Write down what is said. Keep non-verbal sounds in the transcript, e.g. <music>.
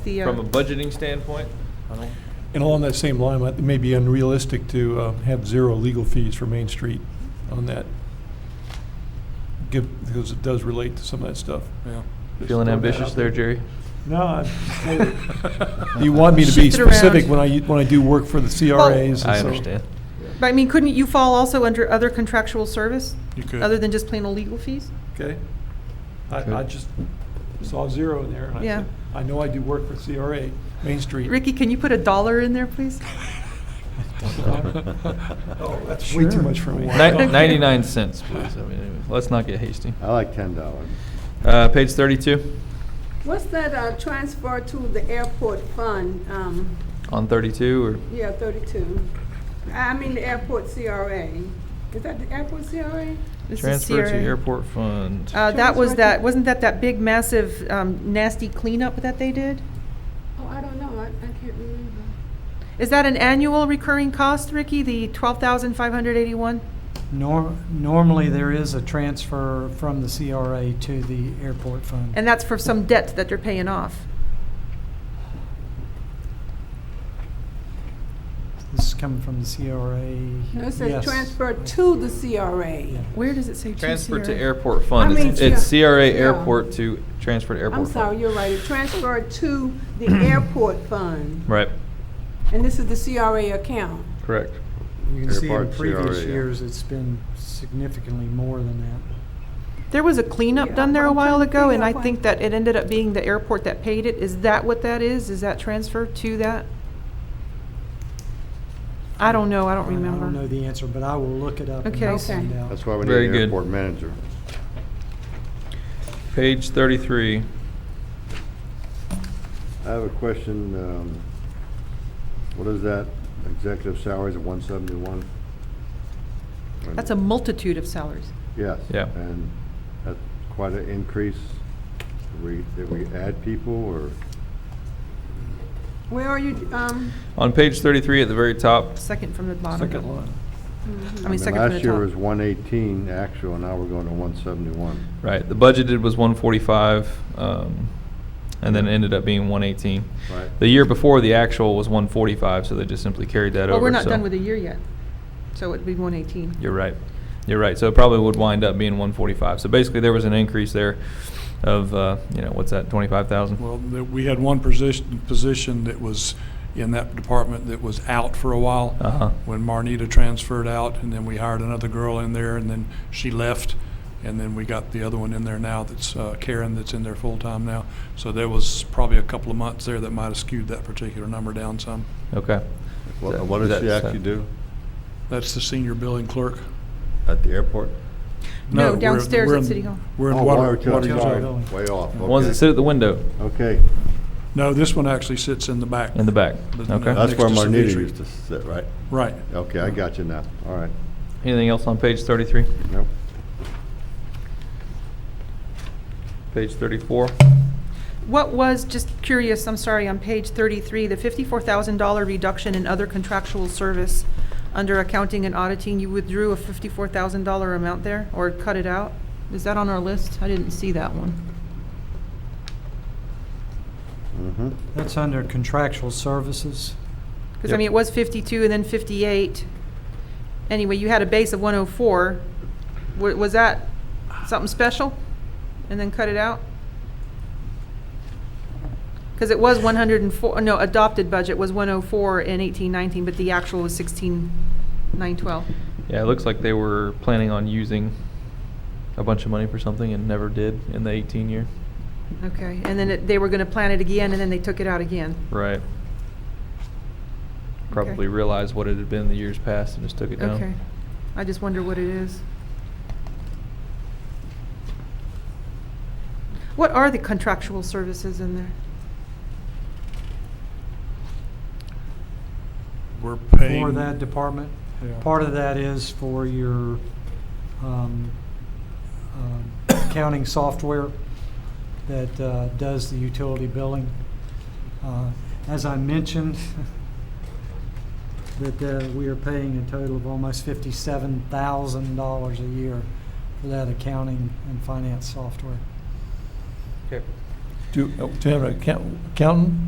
the, uh, From a budgeting standpoint, I don't, And along that same line, it may be unrealistic to uh, have zero legal fees for Main Street on that. Give, because it does relate to some of that stuff. yeah. Just Feeling throwing that ambitious out there, Jerry? No, <laughs> I'm You want me to be Shift it around. specific when I, when I do work for the CRAs and so. I understand. but I mean, couldn't you fall also under other contractual service? You could. Other than just plain old legal fees? Okay. Okay. I, I just saw zero in there. and I Yeah. said, I know I do work for CRA, Main Street. Ricky, can you put a dollar in there, please? <laughs> <laughs> Oh, that's way too much for me. Ni- Ninety-nine cents, please. I mean, anyway, let's not get hasty. I like ten dollars. Uh, page thirty-two, What's that uh, transfer to the airport fund? Um, on thirty-two, or? Yeah, 32. I I mean, the airport CRA. Is that the airport CRA? This is Transfer to CRA. airport fund. Uh, that was Transfer to- that, wasn't that that big massive um, nasty cleanup that they did? Oh, I don't know. I I can't remember. Is that an annual recurring cost, Ricky, the twelve thousand five hundred eighty-one? Nor, normally, there is a transfer from the CRA to the airport fund. And that's for some debt that they're paying off. This is coming from the CRA. No, it says Yes. transfer to the CRA. Where does it say to Transfer to CRA? airport fund. I mean, It's it's yeah. CRA Yeah. airport to transfer to airport. I'm fund. sorry, you're right. It transferred to the airport fund. Right, And this is the CRA account. correct. You can see in Airport CRA, previous yeah. years, it's been significantly more than that. There was a cleanup Yeah, done there a I'm while trying to ago, figure and I out why. think that it ended up being the airport that paid it. Is that what that is? Is that transfer to that? I don't know, I don't I don't know remember. the answer, but I will look it up and Okay. find out. That's why we need Very an good. airport manager. Page thirty-three, I have a question, um, what is that, executive salaries of one seventy-one? That's a multitude of salaries. Yes. Yeah. And that's quite an increase. Did we, did we add people or? Where are you, um, on page thirty-three at the very top, Second from the bottom. Second line. Mm-hmm. I mean, second from the Last year was top. one eighteen actual, now we're going to one seventy-one. right, the budgeted was one forty-five, um, and then it ended up being one eighteen. Right. The year before, the actual was one forty-five, so they just simply carried that over. Well, we're not so- done with the year yet, so it'd be one eighteen. You're right. You're right. So it probably would wind up being one forty-five. So basically, there was an increase there of, uh, you know, what's that, twenty-five thousand? Well, that we had one position, position that was in that department that was out for a while. Uh-huh. When Marnita transferred out, and then we hired another girl in there, and then she left. And then we got the other one in there now that's uh, Karen that's in there full-time now. So there was probably a couple of months there that might have skewed that particular number down some. Okay. What That- what does she that's- actually do That's the senior billing clerk. at the airport? No, we're- downstairs we're at in- City Hall. We're in Oh, water. Water water- tower, tower. Way off, okay. The ones that sit at the window Okay, No, this one actually sits in the back. in the back. But no, Okay. that's- that's Next where to Marnita Savitri. used to sit, right? Right. Okay, I got you now, all right. Anything else on page thirty-three? Nope. Page thirty-four? What was, just curious, I'm sorry, on page 33, the $54,000 reduction in other contractual service under accounting and auditing, you withdrew a $54,000 amount there, or cut it out? Is that on our list? I didn't see that one. Mm-hmm. That's under contractual services. Because, I Yep. mean, it was 52 and then 58. Anyway, you had a base of 104. Wa- Was that something special? And then cut it out? Because it was 104, no, adopted budget was 104 and 1819, but the actual was 16912. Yeah, it looks like they were planning on using a bunch of money for something and never did in the eighteen year. Okay, and then it- they were going to plan it again, and then they took it out again. Right. Probably realized what it had been the years past and just took it down. Okay. I just wonder what it is. What are the contractual services in there? We're paying. for that department. Yeah. Part of that is for your um, um, accounting software that uh, does the utility billing. Uh, As I mentioned, that uh, we are paying a total of almost fifty-seven thousand dollars a year for that accounting and finance software. Okay. Do, to have an account- accountant?